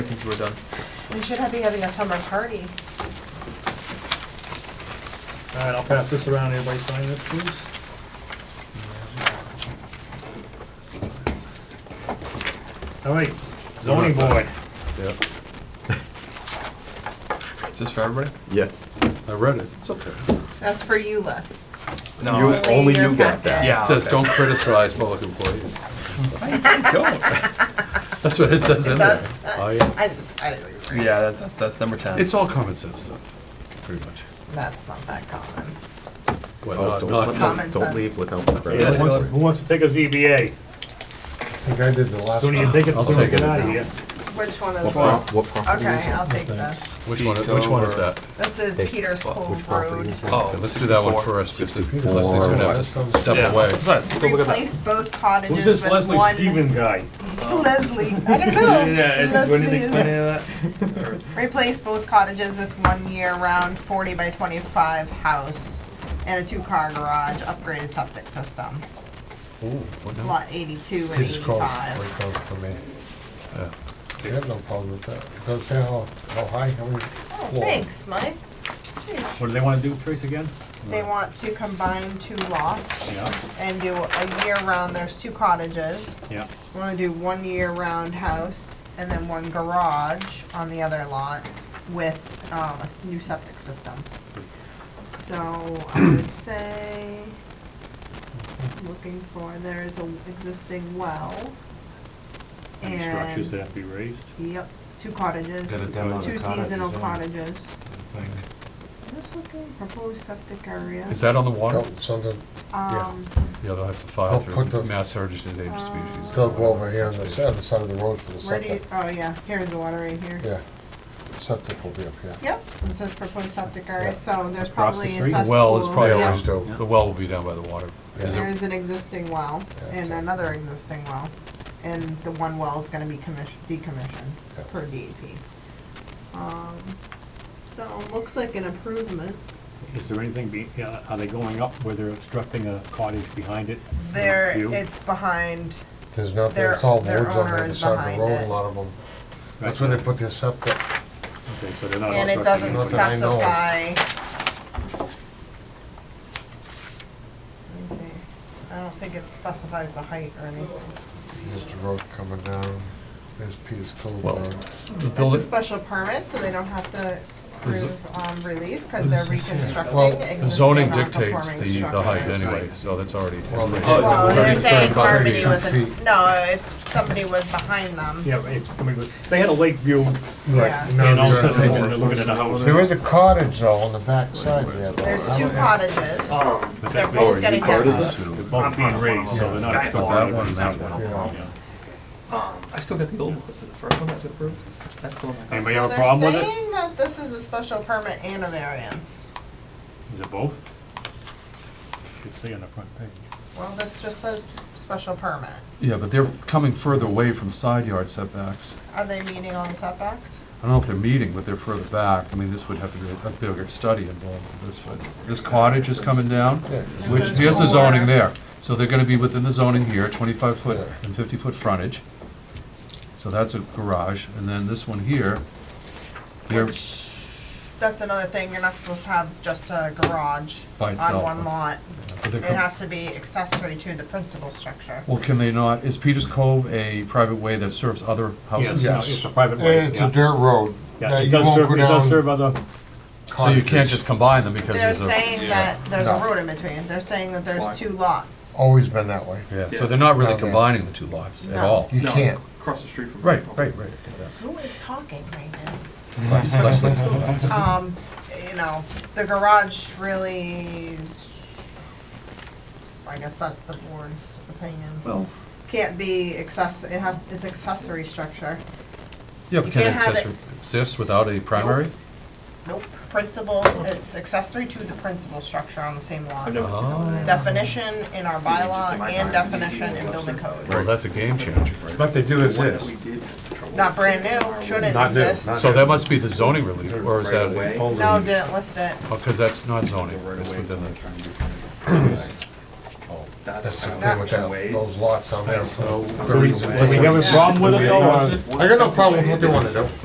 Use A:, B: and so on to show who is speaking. A: since we're done.
B: We should be having a summer party.
C: All right, I'll pass this around. Everybody sign this, please. All right, zoning board.
D: Yeah.
A: Just for everybody?
D: Yes.
E: I read it.
D: It's okay.
B: That's for you, Les.
A: No.
D: You-
B: It's
D: only
B: in your
D: you got that.
B: packet.
A: Yeah.
E: It says,
A: okay.
E: don't criticize public employees.
A: Don't.
E: That's what it says in
B: It
E: there.
B: does.
E: Oh, yeah.
B: I just, I didn't read.
A: Yeah, that- that, that's number ten.
E: It's all common sense stuff, pretty much.
B: That's not that common.
E: What,
D: Oh,
E: not,
D: don't-
E: not-
D: don't-
B: Common
D: Don't
B: sense.
D: leave without the
C: Who
D: credit.
C: wants, who wants to take a ZBA?
F: I think I did the last
C: Sooner
F: one.
C: you take it, the
E: I'll
C: sooner you get
E: take it
C: out of
E: now.
C: here.
B: Which one is
D: What prop-
B: this?
D: what property is
B: Okay,
D: it?
B: I'll take this.
E: which one, which one is that?
B: This is Peter's Cove
F: Which property
B: Road.
F: is that?
A: Oh,
E: Okay, Let's do that one
A: 64.
E: first, because Leslie's gonna have to step
A: Yeah,
E: away.
A: sorry, let's go look at that.
B: Replace both
C: Who's
B: cottages
C: this
B: with
C: Leslie
B: one.
C: Steven guy?
B: Leslie, I don't know.
C: Do I need to
B: Leslie
C: explain
B: is-
C: any of that?
B: Replace both cottages with one year-round forty by twenty-five house and a two-car garage, upgraded septic system.
E: Ooh, what
D: Oh.
E: now?
B: Lot eighty-two and
F: They just called,
B: eighty-five.
F: they called for me.
E: Yeah.
F: They have no problem with that. It Doesn't say how, how high, how
B: Oh,
F: many floors.
B: thanks, Mike.
C: What do they wanna do, Trace, again?
B: They want to combine two lots
C: Yeah,
B: and do a year-round, there's two cottages.
C: yeah.
B: Want to do one year-round house and then one garage on the other lot with um, a s- new septic system. So I would say, looking for, there is a existing well.
C: Any structures that
B: And,
C: have to be raised?
B: yep, two cottages,
F: Got a demo of
B: two
F: the cottages,
B: seasonal
F: yeah.
B: cottages. I'm Just looking, proposed septic area.
E: Is that on the water?
F: Don't send it,
B: Um,
E: Yeah, they'll have to file
F: I'll put
E: through
F: the-
E: Mass Heritage and Endangered Species.
F: they'll go over here on the side, the side of the road for the
B: where do you,
F: septic.
B: oh yeah, here's the water right here.
F: Yeah, septic will be up here.
B: Yep, it says proposed septic area,
F: Yeah.
B: so there's
C: Across the
B: probably a
C: street?
B: cesspool.
E: Well, it's probably
F: They
B: yeah.
F: always do.
E: The well will be down by the water. Is
B: There
E: it-
B: is an existing well
F: Yeah.
B: and another existing well, and the one well is gonna be commissioned, decommissioned
F: Yeah.
B: per DEP. Um, So, looks like an improvement.
C: Is there anything, be- yeah, are they going up where they're obstructing a cottage behind it?
B: There,
C: View?
B: it's behind,
F: There's nothing,
B: Their-
F: it's all woods
B: their
F: on
B: owner
F: the other
B: is
F: side of
B: behind
F: the road,
B: it.
F: a lot of them. That's
C: Right.
F: where they put their septic.
C: Okay, so they're not
B: and it
C: obstructing
B: doesn't
F: Not
C: anything.
F: that I know of.
B: specify. Let me see, I don't think it specifies the height or anything.
F: Here's the road coming down, there's Peter's Cove
E: Well,
F: Road.
E: the
B: It's a
E: building-
B: special permit, so they don't have to
E: Is it-
B: prove um, relief, because they're reconstructing
F: Well,
B: existing
E: The zoning
B: non-conforming
E: dictates the, the height
B: structures.
E: anyway, so that's already.
F: Well, they-
B: Well, they're saying
E: Thirty-five
B: harmony
E: feet.
B: with,
F: Feet.
B: a- no, if somebody was behind them.
C: Yeah, if somebody was, they had a lake view,
B: Yeah.
F: Right, now
C: and all of a
F: they're
C: sudden,
F: taking-
C: they're looking at a house.
F: There is a cottage though on the back side there. though.
B: There's
F: I
B: two
F: don't-
B: cottages,
C: But
B: they're
C: that-
B: both getting demolished.
C: They're both being raised, so they're not
A: That
C: obstructing.
E: one and that
C: anything.
F: one.
C: Yeah.
A: Um, I still got the old, one. the first one that was approved? That's the one I got.
C: Anybody
B: So
C: have a
B: they're
C: problem with it?
B: saying that this is a special permit and a variance.
C: Is it both? Should say on the front page.
B: Well, this just says special permit.
E: Yeah, but they're coming further away from side yard setbacks.
B: Are they meeting on setbacks?
E: I don't know if they're meeting, but they're further back. I mean, this would have to be a bigger study involved with this. but This cottage is coming down,
F: Yeah.
E: which,
B: This is
E: here's the
B: four.
E: zoning there. So they're gonna be within the zoning here, twenty-five foot and fifty-foot frontage. So that's a garage, and then this one here, they're,
B: Which, that's another thing, you're not supposed to have just a garage
E: By
B: on
E: itself.
B: one lot.
E: but they're
B: It
E: com-
B: has to be accessory to the principal structure.
E: well, can they not, is Peters Cove a private way that serves other houses?
C: Yeah, it's a- It's a private way,
F: It's a
C: yeah.
F: dirt road.
C: Yeah,
F: that
C: it
F: you
C: does
F: won't
C: serve,
F: go
C: it does
F: down
C: serve other,
E: So you can't
F: cottages.
E: just combine them because
B: They're
E: there's a.
B: saying that there's a
F: No.
B: road in between, they're saying that there's two lots.
E: Oh.
F: Always been that way.
E: Yeah, so they're not really
F: Okay.
E: combining the two lots at
B: No.
E: all.
F: You
A: No, it's
F: can't.
A: Across the street from.
E: Right, right, right.
B: Who is talking right now?
E: Leslie.
B: Um, you know, the garage really is, I guess that's the board's opinion.
A: Well,
B: Can't be access, it has, it's accessory structure.
E: Yeah, but
B: You
E: can it
B: can't have
E: exist- exist without a primary?
B: Nope, principal, it's accessory to the principal structure on the same lot.
A: I've never seen that one.
B: Oh. Definition in our bylaw
A: my
B: and
A: time.
B: definition in building code.
E: Well, that's a game changer.
F: But they do
A: One that we did have trouble
B: Not
A: with.
B: brand new, shouldn't
F: Not new,
B: exist.
F: not-
E: So that must be the zoning relief, or is that?
A: Right away.
B: No, didn't list it.
E: Because that's not zoning,
A: Right
E: it's
A: away,
E: within
A: someone
E: the,
A: trying to do something.
F: That's
A: That's
F: the
A: kind
F: thing with
A: of
F: that,
A: ways.
F: those lots down there. so
A: So-
F: the reason-
C: do we have a problem with it though? or-
F: I got no problem with what they wanna do.